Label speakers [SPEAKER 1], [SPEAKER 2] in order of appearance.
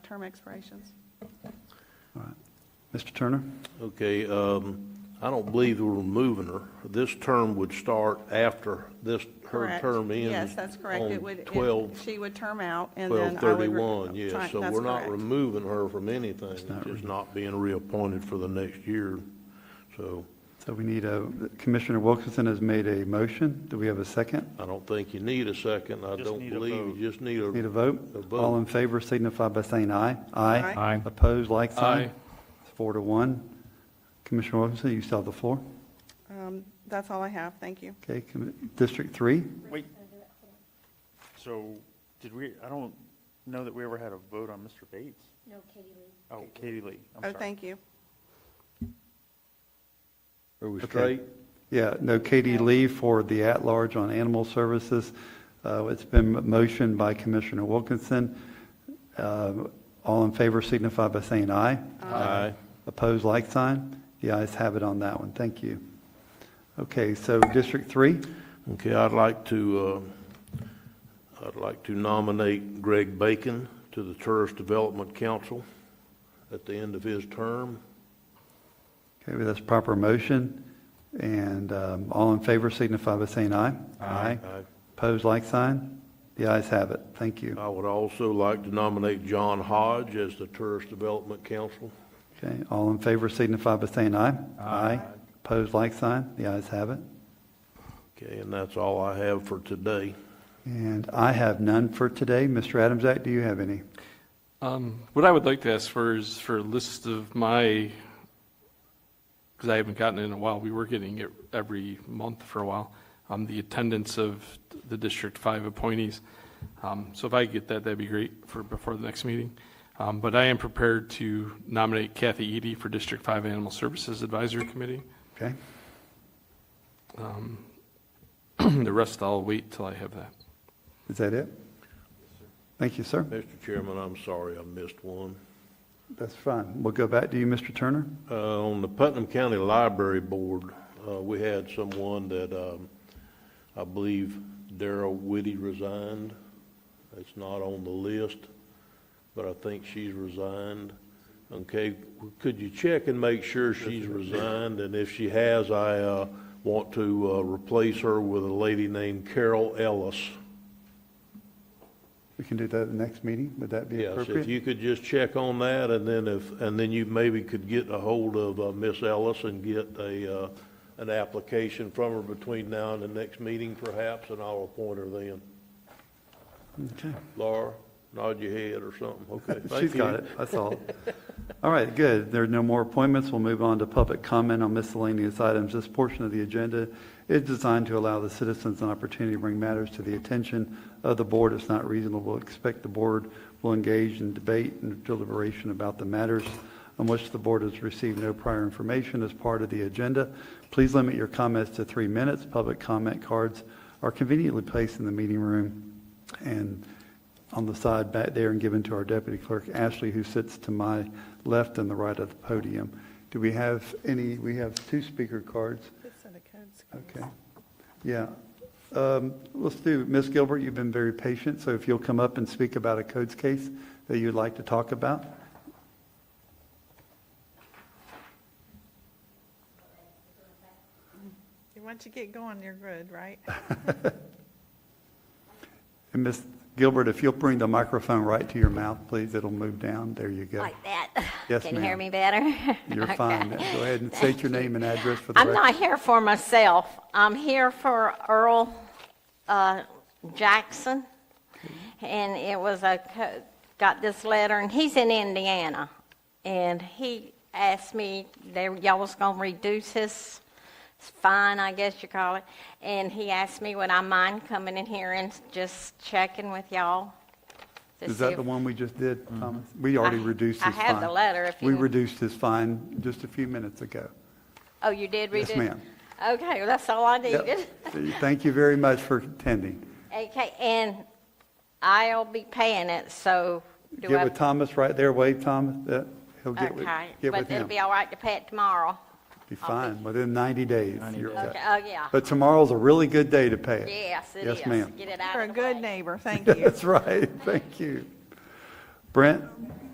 [SPEAKER 1] term expirations.
[SPEAKER 2] Mr. Turner?
[SPEAKER 3] Okay, um, I don't believe we're removing her. This term would start after this, her
[SPEAKER 1] Correct.
[SPEAKER 3] term ends.
[SPEAKER 1] Yes, that's correct. It would,
[SPEAKER 3] On
[SPEAKER 1] it-
[SPEAKER 3] 12,
[SPEAKER 1] she would term out and then I would. re-
[SPEAKER 3] 12/31,
[SPEAKER 1] try-
[SPEAKER 3] yes. So
[SPEAKER 1] that's
[SPEAKER 3] we're not
[SPEAKER 1] correct.
[SPEAKER 3] removing her from anything,
[SPEAKER 2] not
[SPEAKER 3] just not being reappointed for the next year. So
[SPEAKER 2] So we need a, Commissioner Wilkinson has made a motion. Do we have a second?
[SPEAKER 3] I don't think you need a second. I
[SPEAKER 4] Just
[SPEAKER 3] don't
[SPEAKER 4] need a
[SPEAKER 3] believe, you
[SPEAKER 4] vote.
[SPEAKER 3] just need
[SPEAKER 2] Need a
[SPEAKER 3] a, A
[SPEAKER 2] vote?
[SPEAKER 3] vote.
[SPEAKER 2] All in favor signify by saying aye.
[SPEAKER 1] Aye.
[SPEAKER 5] Aye.
[SPEAKER 2] Opposed, like sign?
[SPEAKER 5] Aye.
[SPEAKER 2] It's Four to one. Commissioner Wilkinson, you still have the floor.
[SPEAKER 1] Um, That's all I have. Thank you.
[SPEAKER 2] Okay, Commi- District Three?
[SPEAKER 4] Wait. So, did we, I don't know that we ever had a vote on Mr. Bates.
[SPEAKER 6] No, Katie Lee.
[SPEAKER 4] Oh, Katie Lee, I'm
[SPEAKER 1] Oh,
[SPEAKER 4] sorry.
[SPEAKER 1] thank you.
[SPEAKER 3] are we
[SPEAKER 2] Okay.
[SPEAKER 3] straight?
[SPEAKER 2] Yeah, no, Katie Lee for the at-large on animal services. Uh, It's been motioned by Commissioner Wilkinson. Uh, All in favor signify by saying aye.
[SPEAKER 1] Uh,
[SPEAKER 3] Aye.
[SPEAKER 2] Opposed, like sign. The ayes have it on that one. Thank you. Okay, so District Three,
[SPEAKER 3] Okay, I'd like to, uh, I'd like to nominate Greg Bacon to the Tourist Development Council at the end of his term.
[SPEAKER 2] okay, well, that's proper motion. And um, all in favor signify by saying aye. Aye.
[SPEAKER 3] I-
[SPEAKER 2] Opposed, like sign. The ayes have it. Thank you.
[SPEAKER 3] I would also like to nominate John Hodge as the Tourist Development Council.
[SPEAKER 2] Okay, all in favor signify by saying aye. Aye. Opposed, like sign. The ayes have it.
[SPEAKER 3] Okay, and that's all I have for today.
[SPEAKER 2] And I have none for today. Mr. Adamsack, do you have any?
[SPEAKER 5] Um, What I would like to ask for is for a list of my, because I haven't gotten it in a while, we were getting it every month for a while, um, the attendance of the District Five appointees. Um, So if I could get that, that'd be great for, before the next meeting. Um, But I am prepared to nominate Kathy Eady for District Five Animal Services Advisory Committee.
[SPEAKER 2] Okay,
[SPEAKER 5] The rest I'll wait till I have that.
[SPEAKER 2] is that it? Thank you, sir.
[SPEAKER 3] Mr. Chairman, I'm sorry I missed one.
[SPEAKER 2] That's fine. We'll go back to you, Mr. Turner.
[SPEAKER 3] Uh, On the Putnam County Library Board, uh, we had someone that um, I believe Darrell Whitty resigned. It's not on the list, but I think she's resigned. Okay, could you check and make sure she's resigned? And if she has, I uh, want to uh, replace her with a lady named Carol Ellis.
[SPEAKER 2] We can do that at the next meeting. Would that be
[SPEAKER 3] Yes, if
[SPEAKER 2] appropriate?
[SPEAKER 3] you could just check on that, and then if, and then you maybe could get a hold of uh, Miss Ellis and get a, uh, an application from her between now and the next meeting perhaps, and I'll appoint her then.
[SPEAKER 2] Okay.
[SPEAKER 3] Laura, nod your head or something, okay?
[SPEAKER 2] She's
[SPEAKER 3] thank
[SPEAKER 2] got
[SPEAKER 3] you.
[SPEAKER 2] it. That's all. All right, good. There are no more appointments. We'll move on to public comment on miscellaneous items. This portion of the agenda is designed to allow the citizens an opportunity to bring matters to the attention of the board. It's not reasonable to expect the board will engage in debate and deliberation about the matters on which the board has received no prior information as part of the agenda. Please limit your comments to three minutes. Public comment cards are conveniently placed in the meeting room and on the side back there and given to our deputy clerk, Ashley, who sits to my left and the right of the podium. Do we have any, we have two speaker cards. Okay. Yeah. Um, Let's do, Ms. Gilbert, you've been very patient, so if you'll come up and speak about a codes case that you'd like to talk about.
[SPEAKER 1] Once you get going, you're good, right?
[SPEAKER 2] And Ms. Gilbert, if you'll bring the microphone right to your mouth, please, it'll move down. There you go.
[SPEAKER 6] Like that?
[SPEAKER 2] Yes,
[SPEAKER 6] Can you hear
[SPEAKER 2] ma'am.
[SPEAKER 6] me better?
[SPEAKER 2] You're
[SPEAKER 6] Okay.
[SPEAKER 2] fine. Go ahead and state your name and address for the
[SPEAKER 6] I'm
[SPEAKER 2] record.
[SPEAKER 6] not here for myself. I'm here for Earl uh, Jackson. And it was a, co- got this letter, and he's in Indiana. And he asked me, they, y'all was gonna reduce his fine, I guess you call it. And he asked me, would I mind coming in here and just checking with y'all? to
[SPEAKER 2] Is
[SPEAKER 6] see
[SPEAKER 2] that
[SPEAKER 6] if-
[SPEAKER 2] the one we just did, Thomas? We already
[SPEAKER 6] I-
[SPEAKER 2] reduced
[SPEAKER 6] I
[SPEAKER 2] his fine.
[SPEAKER 6] have the letter if
[SPEAKER 2] We
[SPEAKER 6] you-
[SPEAKER 2] reduced his fine just a few minutes ago.
[SPEAKER 6] Oh, you did read
[SPEAKER 2] Yes,
[SPEAKER 6] it?
[SPEAKER 2] ma'am.
[SPEAKER 6] Okay, well, that's all I
[SPEAKER 2] Yep.
[SPEAKER 6] needed.
[SPEAKER 2] Thank you very much for attending.
[SPEAKER 6] Okay, and I'll be paying it, so do
[SPEAKER 2] Get
[SPEAKER 6] I?
[SPEAKER 2] with Thomas right there, wave Thomas, that, he'll get with,
[SPEAKER 6] Okay,
[SPEAKER 2] get
[SPEAKER 6] but
[SPEAKER 2] with
[SPEAKER 6] it'll
[SPEAKER 2] him.
[SPEAKER 6] be all right to pay it tomorrow.
[SPEAKER 2] Be fine, within 90 days. you're
[SPEAKER 6] Okay,
[SPEAKER 2] okay.
[SPEAKER 6] oh, yeah.
[SPEAKER 2] But tomorrow's a really good day to pay it.
[SPEAKER 6] Yes, it is.
[SPEAKER 2] Yes, ma'am.
[SPEAKER 6] Get it out
[SPEAKER 1] You're a
[SPEAKER 6] of the way.
[SPEAKER 1] good neighbor. Thank you.
[SPEAKER 2] That's right, thank you. Brent?